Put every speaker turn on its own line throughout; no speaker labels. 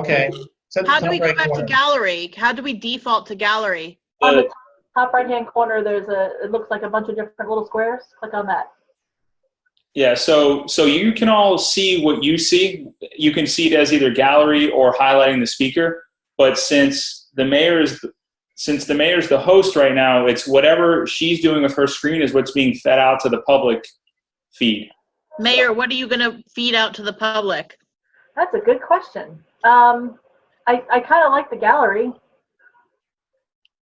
Okay. so
How do we go
celebrate
back to
one.
gallery? How do we default to gallery?
Uh,
Top right-hand corner, there's a, it looks like a bunch of different little squares. Click on that.
yeah, so so you can all see what you see. You can see it as either gallery or highlighting the speaker. But since the mayor is since the mayor's the host right now, it's whatever she's doing with her screen is what's being fed out to the public feed.
Mayor, what are you going to feed out to the public?
That's a good question. Um, I, I kind of like the gallery.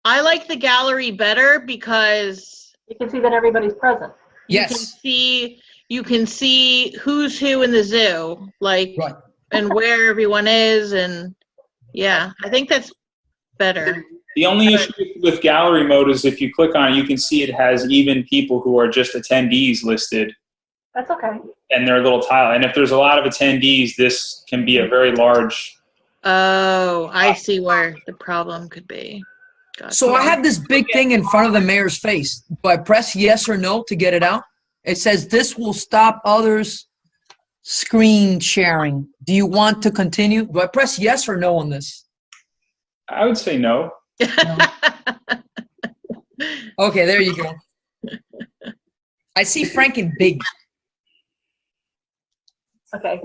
I like the gallery better because
You can see that everybody's present.
you can
Yes,
see you can see who's who in the zoo, like
Right.
and where everyone is and yeah, I think that's better.
The only issue with gallery mode is if you click on it, you can see it has even people who are just attendees listed
That's okay.
and their little tile. And if there's a lot of attendees, this can be a very large
Oh, I see where the problem could be. Gotcha.
So I have this big thing in front of the mayor's face. Do I press yes or no to get it out? It says this will stop others screen sharing. Do you want to continue? Do I press yes or no on this?
I would say no.
Okay, there you go. I see Frank in big.
Okay.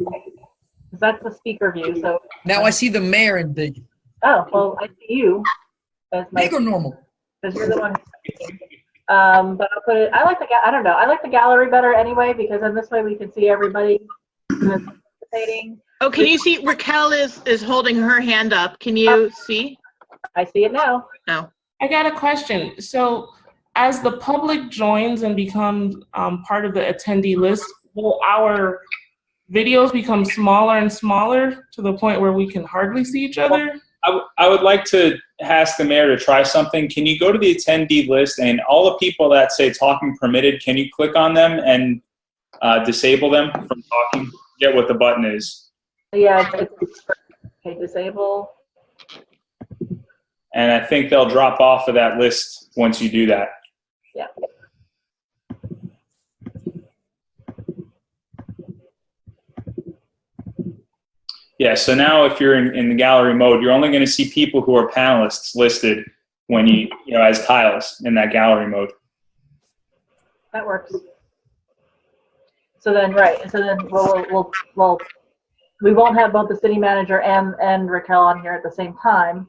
That's the speaker view, so,
Now I see the mayor in big.
oh, well, I see you as my,
Big or normal?
because you're the one who's speaking. Um, but I'll put it, I like the, ga- I don't know, I like the gallery better anyway, because then this way we can see everybody who is participating.
oh, can you see Raquel is is holding her hand up. Can you see?
I see it now.
I got a question. So, as the public joins and becomes um, part of the attendee list, will our videos become smaller and smaller to the point where we can hardly see each other?
I, w- I would like to ask the mayor to try something. Can you go to the attendee list and all the people that say talking permitted, can you click on them and uh, disable them from talking? Get what the button is.
Yeah, it's, okay, disable.
And I think they'll drop off of that list once you do that. Yeah, so now if you're in, in the gallery mode, you're only going to see people who are panelists listed when you, you know, as tiles in that gallery mode.
That works. So then, right, so then we'll, we'll, we'll, we won't have both the city manager and, and Raquel on here at the same time.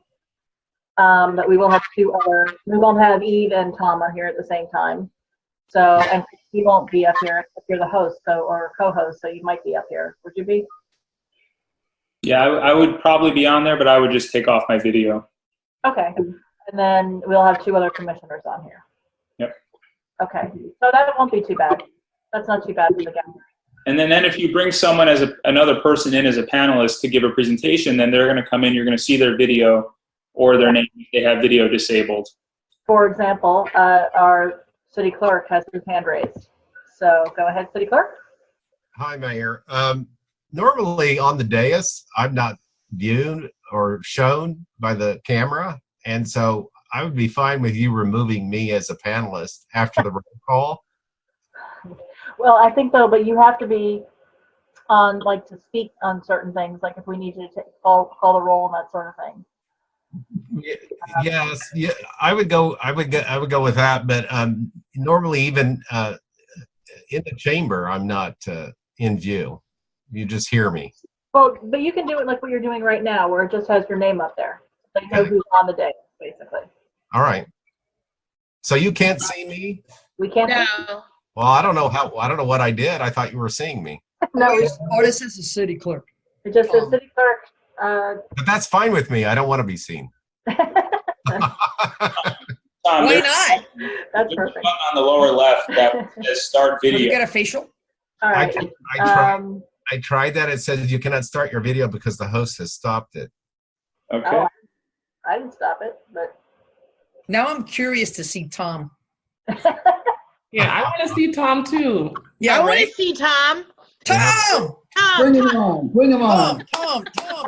Um, but we will have two other, we won't have Eve and Tom on here at the same time. So, and you won't be up here if you're the host, so, or co-host, so you might be up here. Would you be?
Yeah, I, I would probably be on there, but I would just take off my video.
Okay, and then we'll have two other commissioners on here.
Yep.
Okay, so that won't be too bad. That's not too bad for the gallery.
And then, then if you bring someone as a, another person in as a panelist to give a presentation, then they're going to come in, you're going to see their video or their name if they have video disabled.
For example, uh, our city clerk has his hand raised. So go ahead, city clerk.
Hi, Mayor. Um, normally on the dais, I'm not viewed or shown by the camera. And so I would be fine with you removing me as a panelist after the roll call.
Well, I think though, but you have to be on, like, to speak on certain things, like if we need you to take- call, call the roll and that sort of thing.
Y- Yes, yeah, I would go, I would go, I would go with that, but, um, normally even, uh, in the chamber, I'm not, uh, in view. You just hear me.
Well, but you can do it like what you're doing right now, where it just has your name up there. They know who's on the day, basically.
All right. So you can't see me?
We can't.
No.
Well, I don't know how, I don't know what I did. I thought you were seeing me.
No,
Or
it
this- Or Oh, this is the city clerk.
just says city clerk, uh,
But that's fine with me. I don't want to be seen.
Tom,
Why
there's
not?
that's
there's a
perfect.
button on the lower left that says start
Did you
video.
get a facial?
All
I,
right.
tr- I, tried,
Um,
I tried that. It says you cannot start your video because the host has stopped it.
Okay.
oh, I didn't stop it,
Now I'm curious to see Tom.
but.
Yeah, I want to see Tom too.
I
Yeah,
want
right?
to see Tom.
Tom!
Tom,
Bring him
Tom.
on, bring him
Tom,
on.
Tom, Tom.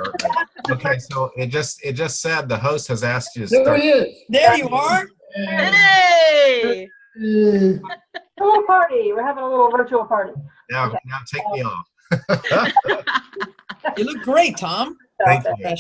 Okay, so it just it just said the host has asked you to
There
start.
he is.
There you are.
Mm.
Yeah.
Hey.
Yeah.
A little party. We're having a little virtual party.
Now now take me off.
You look great, Tom.
Stop
Thank
it.
you.